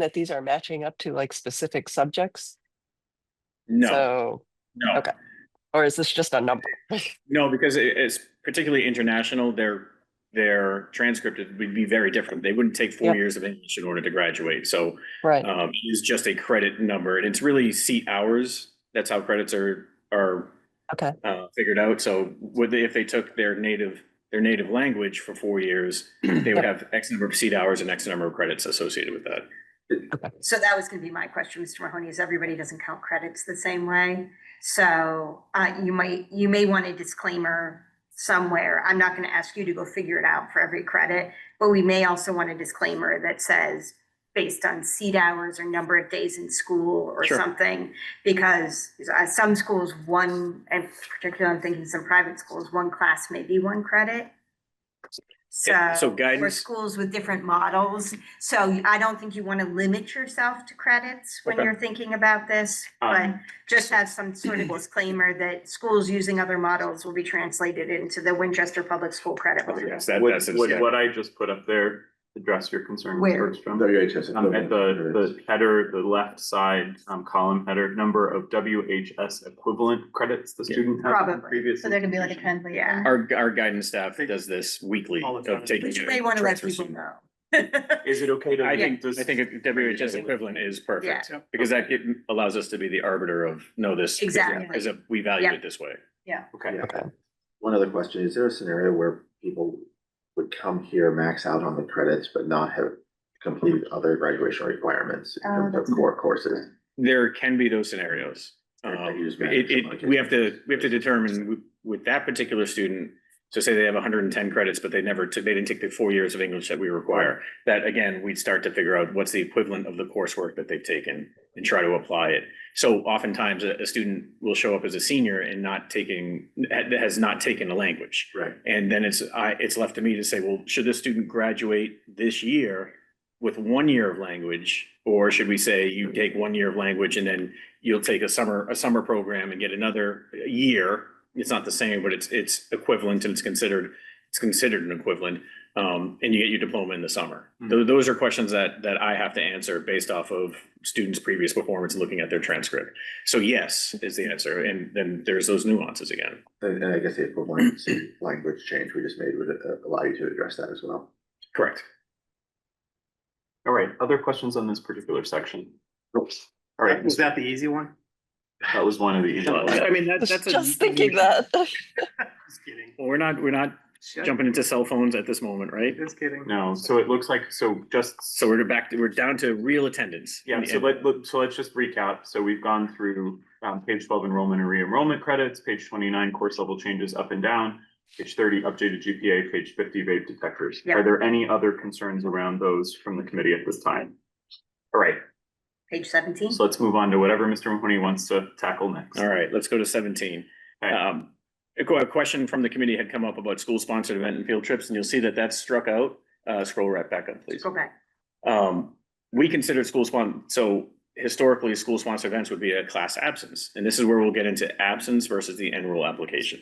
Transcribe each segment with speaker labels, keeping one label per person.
Speaker 1: that these are matching up to like specific subjects?
Speaker 2: No,
Speaker 1: So,
Speaker 2: no,
Speaker 1: okay. or is this just a number?
Speaker 2: no, because it- it's particularly international, their, their transcript would be very different. They wouldn't take
Speaker 1: Yeah.
Speaker 2: four years of English in order to graduate, so
Speaker 1: Right,
Speaker 2: um, it is just a credit number, and it's really seat hours. That's how credits are, are
Speaker 1: Okay.
Speaker 2: uh, figured out, so would they, if they took their native, their native language for four years, they would have X number of seat hours and X number of credits associated with that.
Speaker 3: So that was gonna be my question, Mr. Mahoney, is everybody doesn't count credits the same way. So uh, you might, you may want a disclaimer somewhere. I'm not gonna ask you to go figure it out for every credit, but we may also want a disclaimer that says based on seat hours or number of days in school or
Speaker 2: Sure.
Speaker 3: something. Because uh, some schools, one, and particularly I'm thinking some private schools, one class may be one credit.
Speaker 2: Yeah,
Speaker 3: So.
Speaker 2: So
Speaker 3: For
Speaker 2: guidance,
Speaker 3: schools with different models, so you- I don't think you want to limit yourself to credits when
Speaker 2: Okay.
Speaker 3: you're thinking about this, but
Speaker 2: Um,
Speaker 3: just have some sort of disclaimer that schools using other models will be translated into the Winchester Public School Credit
Speaker 2: Oh,
Speaker 3: Model.
Speaker 2: yes, that,
Speaker 4: Would,
Speaker 2: that's. it,
Speaker 4: would
Speaker 2: yeah.
Speaker 4: what I just put up there address your concern, Ms.
Speaker 3: Where?
Speaker 4: Bergstrom?
Speaker 5: WHS.
Speaker 4: Um, at the, the header, the left side, um, column header, number of WHS equivalent credits the
Speaker 2: Yeah.
Speaker 4: student has.
Speaker 3: Probably.
Speaker 4: Previous.
Speaker 6: So there can be like a
Speaker 4: institution.
Speaker 6: translation.
Speaker 2: Our, our guidance staff does this weekly
Speaker 4: All the
Speaker 2: of
Speaker 4: time.
Speaker 2: taking.
Speaker 3: Which you may want to let people
Speaker 2: transfers.
Speaker 3: know.
Speaker 4: Is it okay to?
Speaker 2: I
Speaker 4: leave
Speaker 2: think,
Speaker 4: this-
Speaker 2: I think a WHS equivalent is perfect,
Speaker 4: Yeah.
Speaker 2: because that it allows us to be the arbiter of, no, this.
Speaker 3: Exactly.
Speaker 2: Is a, we value
Speaker 3: Yeah.
Speaker 2: it this way.
Speaker 4: Okay.
Speaker 1: okay.
Speaker 5: One other question, is there a scenario where people would come here, max out on the credits, but not have completed other graduation requirements in
Speaker 6: Uh,
Speaker 5: terms of
Speaker 6: that's-
Speaker 5: core courses?
Speaker 2: There can be those scenarios.
Speaker 5: Or
Speaker 2: Um,
Speaker 5: use
Speaker 2: it,
Speaker 5: management.
Speaker 2: it, we have to, we have to determine w- with that particular student, so say they have hundred and ten credits, but they never took, they didn't take the four years of English that we require. That again, we'd start to figure out what's the equivalent of the coursework that they've taken and try to apply it. So oftentimes a, a student will show up as a senior and not taking, ha- has not taken a language.
Speaker 5: Right.
Speaker 2: And then it's, I, it's left to me to say, well, should this student graduate this year with one year of language? Or should we say you take one year of language and then you'll take a summer, a summer program and get another year? It's not the same, but it's, it's equivalent and it's considered, it's considered an equivalent. Um, and you get your diploma in the summer.
Speaker 1: Hmm.
Speaker 2: Those, those are questions that, that I have to answer based off of students' previous performance, looking at their transcript. So yes, is the answer. And then there's those nuances again.
Speaker 5: And, and I guess the equivalent language change we just made would uh, allow you to address that as well.
Speaker 2: Correct.
Speaker 4: All right, other questions on this particular section? All right,
Speaker 7: Was that the easy one?
Speaker 4: that was one of the. easy ones.
Speaker 2: I mean, that,
Speaker 1: Was
Speaker 2: that's. a-
Speaker 1: Just thinking that.
Speaker 7: Just kidding.
Speaker 2: Well, We're not, we're not jumping into cell phones at this moment, right?
Speaker 7: Just kidding.
Speaker 4: No, so it looks like, so just.
Speaker 2: So we're back, we're down to real attendance.
Speaker 4: Yeah, so let, let- so let's just recap. So we've gone through um page twelve enrollment and re-enrollment credits, page twenty-nine course level changes up and down. Page thirty updated GPA, page fifty vape detectors.
Speaker 3: Yeah.
Speaker 4: Are there any other concerns around those from the committee at this time? All right,
Speaker 3: Page seventeen,
Speaker 4: so let's move on to whatever Mr. Mahoney wants to tackle next.
Speaker 2: All right, let's go to seventeen.
Speaker 4: Okay.
Speaker 2: Um, a que- a question from the committee had come up about school-sponsored event and field trips, and you'll see that that's struck out. Uh, scroll right back up, please.
Speaker 3: go back.
Speaker 2: Um, we consider school spon, so historically, school sponsored events would be a class absence, and this is where we'll get into absence versus the enroll application.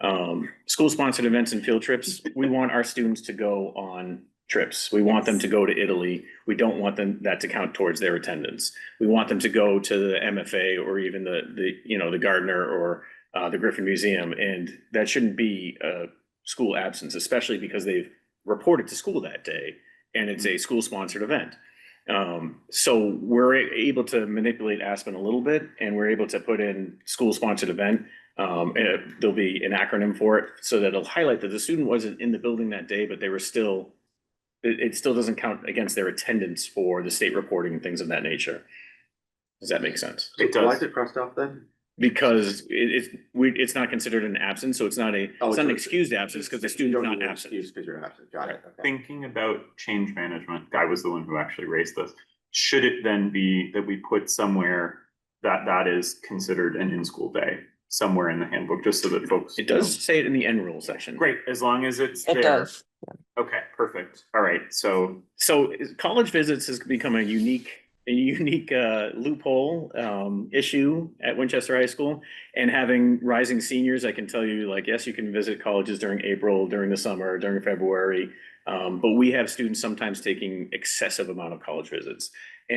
Speaker 2: Um, school sponsored events and field trips, we want our students to go on trips. We want them to go to Italy. We don't want them, that to count towards their attendance. We want them to go to the MFA or even the, the, you know, the Gardner or uh, the Griffin Museum, and that shouldn't be a school absence, especially because they've reported to school that day and it's
Speaker 5: Mm-hmm.
Speaker 2: a school sponsored event. Um, so we're a- able to manipulate Aspen a little bit and we're able to put in school sponsored event. Um, and it- there'll be an acronym for it, so that it'll highlight that the student wasn't in the building that day, but they were still. It, it still doesn't count against their attendance for the state reporting and things of that nature. Does that make sense?
Speaker 4: It
Speaker 5: So Why
Speaker 4: does.
Speaker 5: is it crossed off then?
Speaker 2: Because it, it's, we, it's not considered an absence, so it's not a, it's
Speaker 5: Oh,
Speaker 2: not an
Speaker 5: it's-
Speaker 2: excused absence because the student's not absent.
Speaker 5: Because you're absent, got it. okay.
Speaker 4: Thinking about change management, Guy was the one who actually raised this. Should it then be that we put somewhere that that is considered an in-school day, somewhere in the handbook, just so that folks?
Speaker 2: It does say it in the end rule section.
Speaker 4: Great, as long as it's there.
Speaker 1: It does.
Speaker 4: Okay, perfect. All right, so
Speaker 2: so is- college visits has become a unique, a unique uh, loophole um, issue at Winchester High School. And having rising seniors, I can tell you, like, yes, you can visit colleges during April, during the summer, during February. Um, but we have students sometimes taking excessive amount of college visits.